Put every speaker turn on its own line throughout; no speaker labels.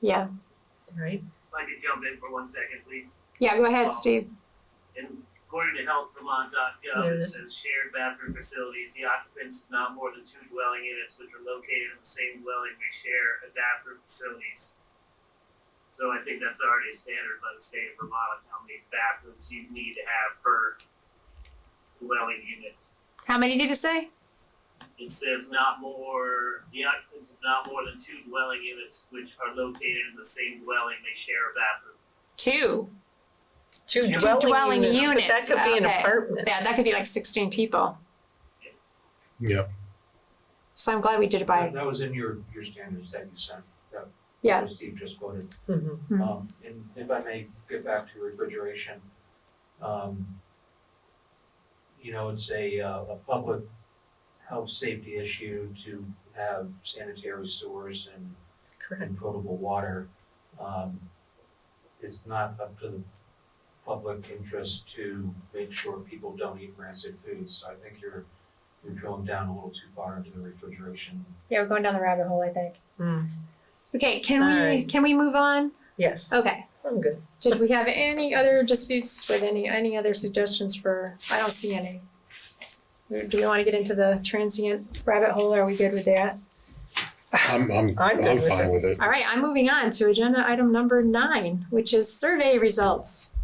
Yeah.
right?
If I could jump in for one second, please.
Yeah, go ahead, Steve.
And according to healthvermont.gov,
There it
uh, it
is.
says shared bathroom facilities, the occupants of not more than two dwelling units which are located in the same dwelling may share a bathroom facilities. So I think that's already a standard by the state of Vermont, on how many bathrooms you need to have per dwelling unit.
How many did you say?
It says not more, the occupants of not more than two dwelling units which are located in the same dwelling may share a bathroom.
Two.
Two
Two
dwelling
But that
units,
could be an
okay.
apartment.
Yeah, that could be like sixteen people.
Yeah.
So I'm glad we did it
That
by,
that was in your, your standards that you sent, that
yeah,
that Steve just quoted.
Mhm.
Mhm.
Um, and if I may get back to refrigeration, um, you know, it's a, uh, a public health safety issue to have sanitary sewers and
Correct.
and potable water, um, it's not up to the public interest to make sure people don't eat rancid foods, so I think you're, you're drilling down a little too far into the refrigeration.
yeah, we're going down the rabbit hole, I think.
Mm.
Okay, can we,
Alright.
can we move on?
Yes,
Okay,
I'm good.
did we have any other disputes with any, any other suggestions for, I don't see any. Do we wanna get into the transient rabbit hole, are we good with that?
I'm, I'm,
I'm good
I'm
with
fine with it.
All right, I'm moving on to agenda item number nine, which is survey results.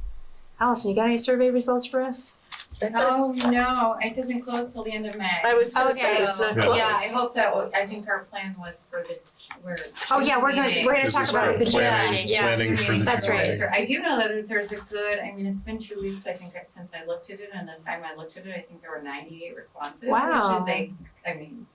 Allison, you got any survey results for us?
That's it.
Oh, no, it doesn't close till the end of May.
I was gonna say,
Okay.
it's not
Yeah.
closed.
Yeah, I hope that, wa- I think our plan was for the, we're.
Oh, yeah, we're gonna, we're gonna
This
talk
is
about
for
the
planning.
July, yeah.
planning for
the That's June right.
meeting.
I do know that there's a good, I mean, it's been two weeks, I think, since I looked at it, and the time I looked at it, I think there were ninety-eight responses, which
Wow.
is a, I mean,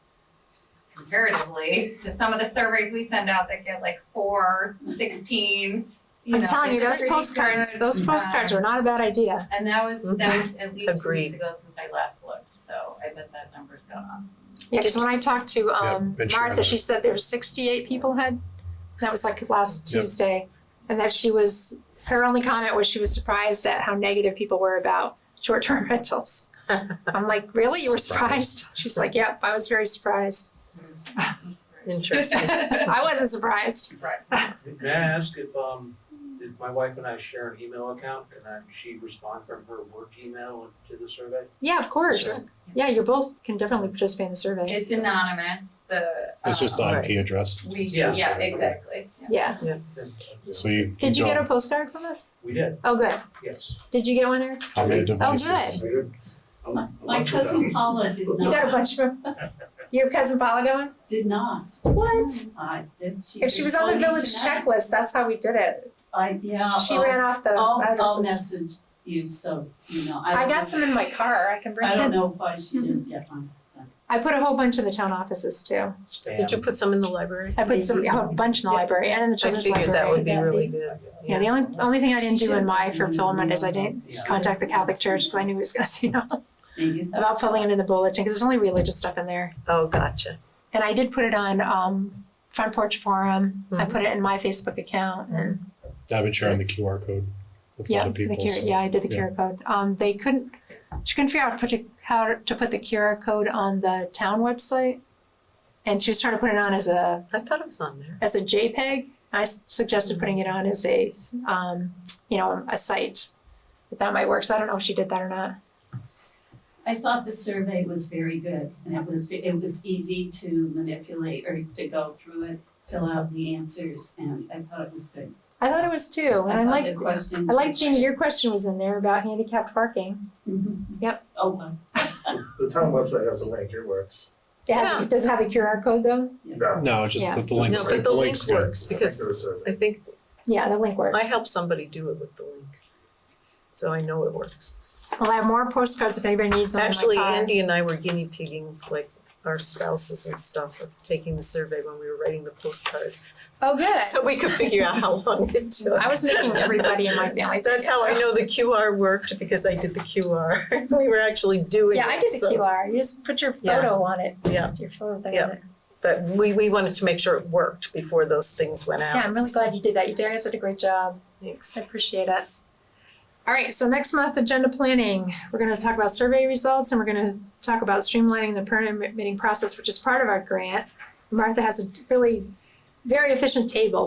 comparatively to some of the surveys we send out that get like four, sixteen, you know,
I'm telling you,
it's
those
pretty
postcards,
good.
those postcards were not a bad idea.
And that was, that was at least two
Agreed.
weeks ago since I last looked, so I bet that number's gone up.
Yeah, cause when I talked to um
been sure
Martha,
about
she said there were sixty-eight people had, that was like last
Yep.
Tuesday. And that she was, her only comment was she was surprised at how negative people were about short-term rentals. I'm like, really? You were surprised? She's like, yep, I was very surprised.
Interesting.
I wasn't surprised.
Right.
May I ask if, um, did my wife and I share an email account, can I, she respond from her work email to the survey?
Yeah, of course.
Sure.
Yeah, you both can definitely participate in the survey.
It's anonymous, the.
It's just
um,
the IP address.
We,
Yeah.
yeah, exactly, yeah.
Yeah.
So you.
Did you get a
don't-
postcard from us?
We did,
Oh, good.
yes.
Did you get one, Eric?
How many
Oh,
devices?
My cousin Paula did
You got a
not,
bunch of them. Your cousin Paula got one?
did not.
What?
I did, she.
If she was on the
told me
village
tonight.
checklist, that's how we did it.
I, yeah,
She
I'll-
ran off the
I'll, I'll
addresses.
message you, so, you know, I
I
don't know-
got some in my Mm-hmm. car. I can bring
I don't
it.
know why she didn't get one.
I put a whole bunch in the town offices too.
Spam.
Did you put some in the library?
I put some, a bunch in the
Yeah.
library and in the
I
children's library.
figured that would be
That'd
really good.
Yeah, the only, only thing I didn't do in my fulfillment is I didn't contact the Catholic Church because I knew he was gonna say no
Maybe
about
that's.
filling it in the bulletin because there's only religious stuff in there.
Oh, gotcha.
And I did put it on um Front Porch Forum. I
Mm-hmm.
put it in my Facebook account and
I've been sharing the QR code with a
yeah,
lot of
the
people.
QR,
so-
yeah, I did the
yeah.
QR code. Um they couldn't she couldn't figure out how to put the- how to put the QR code on the town website. And she was trying to put it on as a
I thought it was on there.
as a JPEG. I s- suggested putting it on as a um you know, a site. But that might work. So I don't know if she did that or not.
I thought the survey was very good, and it was, it was easy to manipulate or to go through it, fill out the answers, and I thought it was good.
I thought it was too. And I
thought the
like
questions.
I
were-
like Jeannie, your question was in there about handicapped parking.
Mhm.
Yep.
Oh, well,
The town website has a link, it works.
It has, it does have a QR code though.
No.
No, just
Yeah.
that the
No,
links,
No,
good.
but
the
the
links
link
good.
works
I think there
because
was a-
I think
Yeah, the link works.
I helped somebody do it with the link. So I know it works.
I'll have more postcards if anybody needs them in my
Actually,
car.
Andy and I were guinea pigging, like our spouses and stuff, of taking the survey when we were writing the postcard.
Oh, good.
So we could figure out how long it took.
I was making everybody in my family take
That's
it,
how I
so.
know the QR worked because I did the QR. We were actually doing it,
Yeah, I did the
so-
QR. You just put your
Yeah.
photo on it.
Yeah.
Your photo thing
Yeah.
on it.
But we, we wanted to make sure it worked before those things went out.
Yeah, I'm really glad you did that. You guys did a great job.
Thanks.
I appreciate it. All right, so next month, agenda planning. We're gonna talk about survey results and we're gonna talk about streamlining the permitting process, which is part of our grant. Martha has a really very efficient table